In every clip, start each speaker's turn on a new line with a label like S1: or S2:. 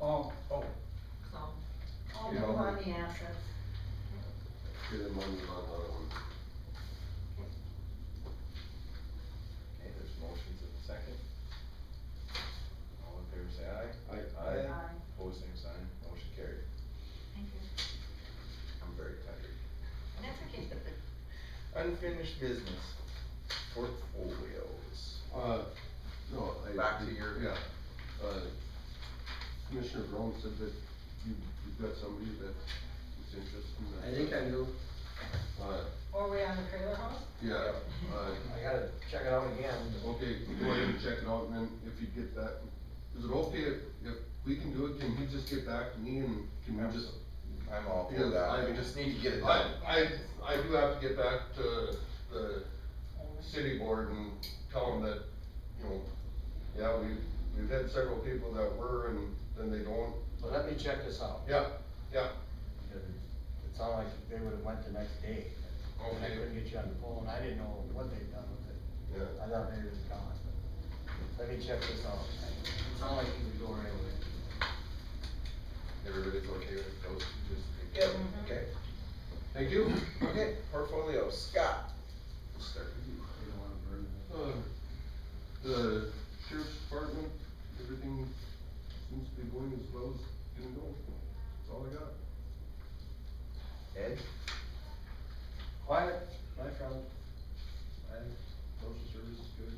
S1: Oh, oh,
S2: so.
S3: I'll
S4: Yeah.
S3: move on the assets.
S4: Get him on the, on that one.
S1: okay, there's motions in a second. All in favor, say aye.
S4: Aye.
S1: Aye.
S3: Aye.
S1: Pose same sign, motion carried.
S2: Thank you.
S1: I'm very tired.
S2: And that's okay.
S1: Unfinished business, portfolios.
S4: Uh, no, I.
S1: Back to your-
S4: Yeah, uh, Commissioner Brown said that you, you've got somebody that is interested in that.
S5: I think I do,
S4: Uh,
S3: Or we on the trailer house?
S4: yeah, uh,
S5: I gotta check it out again, but-
S4: okay, go ahead and check it out, and then if you get back, is it okay if, if we can do it, can he just get back to me and can we just?
S1: I'm all for
S4: Because
S1: that, I
S4: I-
S1: just need to get it
S4: I,
S1: done.
S4: I, I do have to get back to the city board and tell them that, you know, yeah, we, we've had several people that were and then they don't,
S5: but let me check this out.
S4: yeah, yeah,
S5: Because It sounded like they would've went the next day. And I
S4: Okay.
S5: couldn't get you on the phone, I didn't know what they'd done with it.
S4: yeah.
S5: I thought maybe it was gone. Let me check this out. It sounded like you were going anyway.
S1: Everybody's okay with those, two, just.
S3: Yep.
S2: Mm-hmm.
S1: Okay,
S4: Thank you.
S1: okay, portfolio, Scott. We'll start with you.
S4: Uh, The sheriff's department, everything seems to be going as well as it can go. That's all I got.
S1: Ed?
S5: Quiet, my friend.
S4: I, social service is good.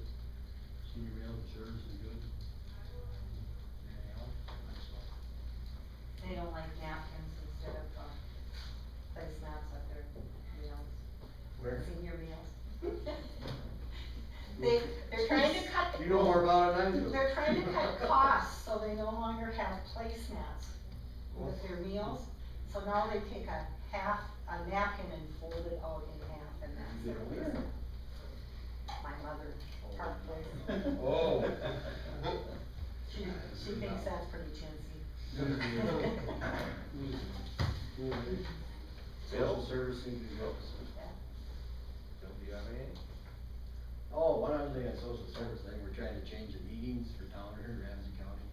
S4: Senior rail service is good.
S3: They don't like napkins instead of, um, place mats at their meals.
S5: Where?
S3: Senior meals. They, they're trying to cut the.
S5: You know more about it than I do.
S3: They're trying to cut costs, so they no longer have placemats with their meals. So now they take a half, a napkin and fold it out in half and that's their
S5: Where?
S3: meal. My mother, probably,
S5: Oh.
S3: she, she thinks that's pretty chintzy.
S1: Bill?
S5: Social service seems to be up.
S1: Bill, do you have any?
S5: Oh, one other thing on social service, I think we're trying to change the meetings for town here in Ramsey County.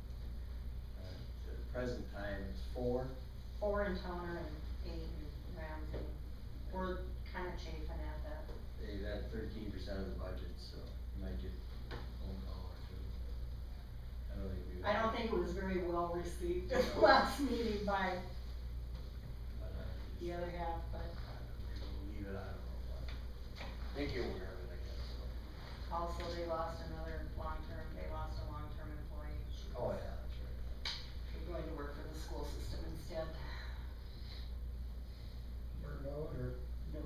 S5: Uh, At the present time, it's four,
S3: Four in Towner and eight in Ramsey. We're kinda chafing at that.
S5: they've had thirteen percent of the budget, so you might get a phone call or two. I don't think we.
S3: I don't think it was very well received at the last meeting by
S5: but, uh,
S3: the other half, but
S5: we'll Leave it, I don't know, but I think you're aware of it, I guess, so.
S3: also they lost another long-term, they lost a long-term employee.
S5: Oh, yeah, that's right.
S3: They're going to work for the school system instead. No.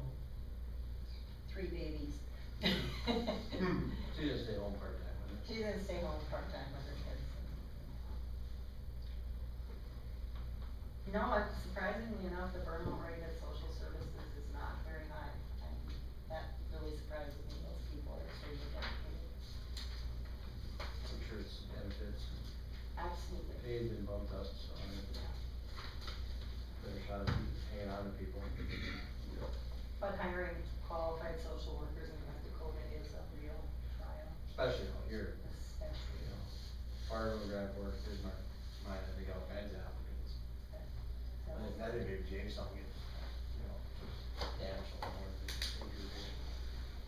S3: Three babies. Hmm.
S5: She just stay home part-time, wouldn't
S3: She's gonna stay home part-time with her kids. No, it's surprisingly enough, the burnout rate at social services is not very high. And That really surprises me, those people are extremely dedicated.
S5: it? I'm sure it's benefits, and
S3: Absolutely.
S5: pay's been bumped up, so I mean,
S3: Yeah.
S5: better try to keep hanging on to people.
S3: But hiring qualified social workers in North Dakota is a real trial,
S5: Especially out here,
S3: especially.
S5: you know, part of the grant work is my, mine, I think all kinds of applicants. I think that'd be James, I'll get, you know, damaged or more. than they do.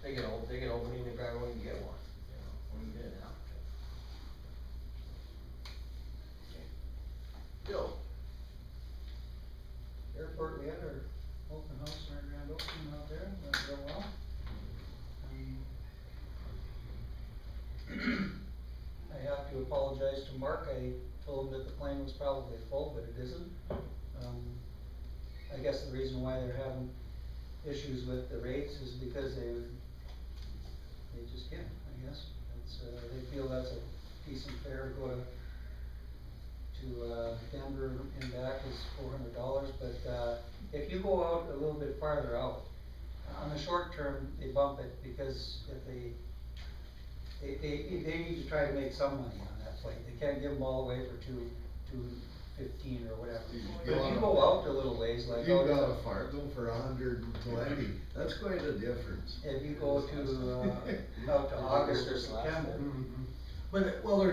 S5: They get old, they get old, we need to grab one and get one, you know, when you get an applicant.
S1: Bill?
S6: airport, we had our open house and our grand opening out there, went real well. Um, I have to apologize to Mark, I told him that the plane was probably full, but it isn't. Um, I guess the reason why they're having issues with the rates is because they, they just can't, I guess. It's, uh, they feel that's a decent fare to go to to uh, Denver and back is four hundred dollars, but, uh, if you go out a little bit farther out, on the short term, they bump it because if they, they, they, they need to try to make some money on that flight, they can't give them all away for two, two fifteen or whatever.
S7: You
S6: But if you go out a little ways, like
S7: You
S6: out
S7: got a
S6: to,
S7: Fargo for a hundred and twenty, that's quite a difference.
S1: Mm-hmm.
S6: if you go to, uh, out to August or September,
S7: But, well,